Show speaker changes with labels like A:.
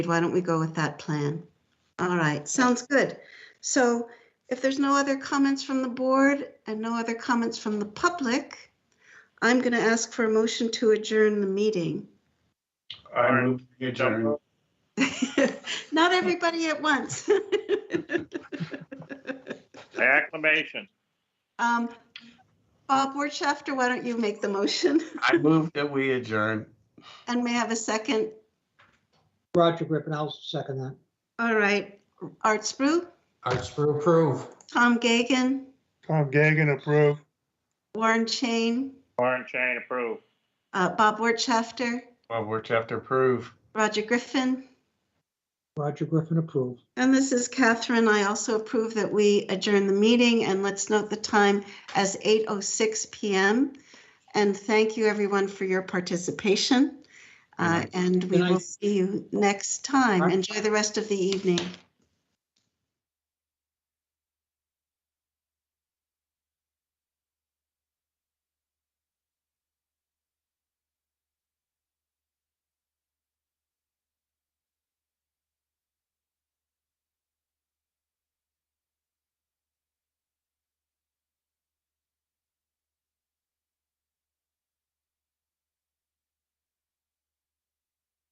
A: Why don't we go with that plan? All right, sounds good. So if there's no other comments from the board and no other comments from the public, I'm going to ask for a motion to adjourn the meeting.
B: I
C: Alright.
B: move to adjourn.
A: Not everybody at once.
C: Acclamation.
A: Um, Bob Wertschafter, why don't you make the motion?
B: I move that we adjourn.
A: And may I have a second?
D: Roger Griffin, I'll second that.
A: All right, Art Spru,
E: Arts for approve.
A: Tom Gagan,
F: Tom Gagan approve.
A: Warren Chain,
C: Warren Chain approved.
A: uh, Bob Wertschafter,
B: Well, we're chapter approve.
A: Roger Griffin.
D: Roger Griffin approve.
A: And this is Catherine. I also approve that we adjourn the meeting and let's note the time as 8:06 PM. And thank you, everyone, for your participation. Uh, And we
D: Good night.
A: will see you next time.
D: Bye.
A: Enjoy the rest of the evening.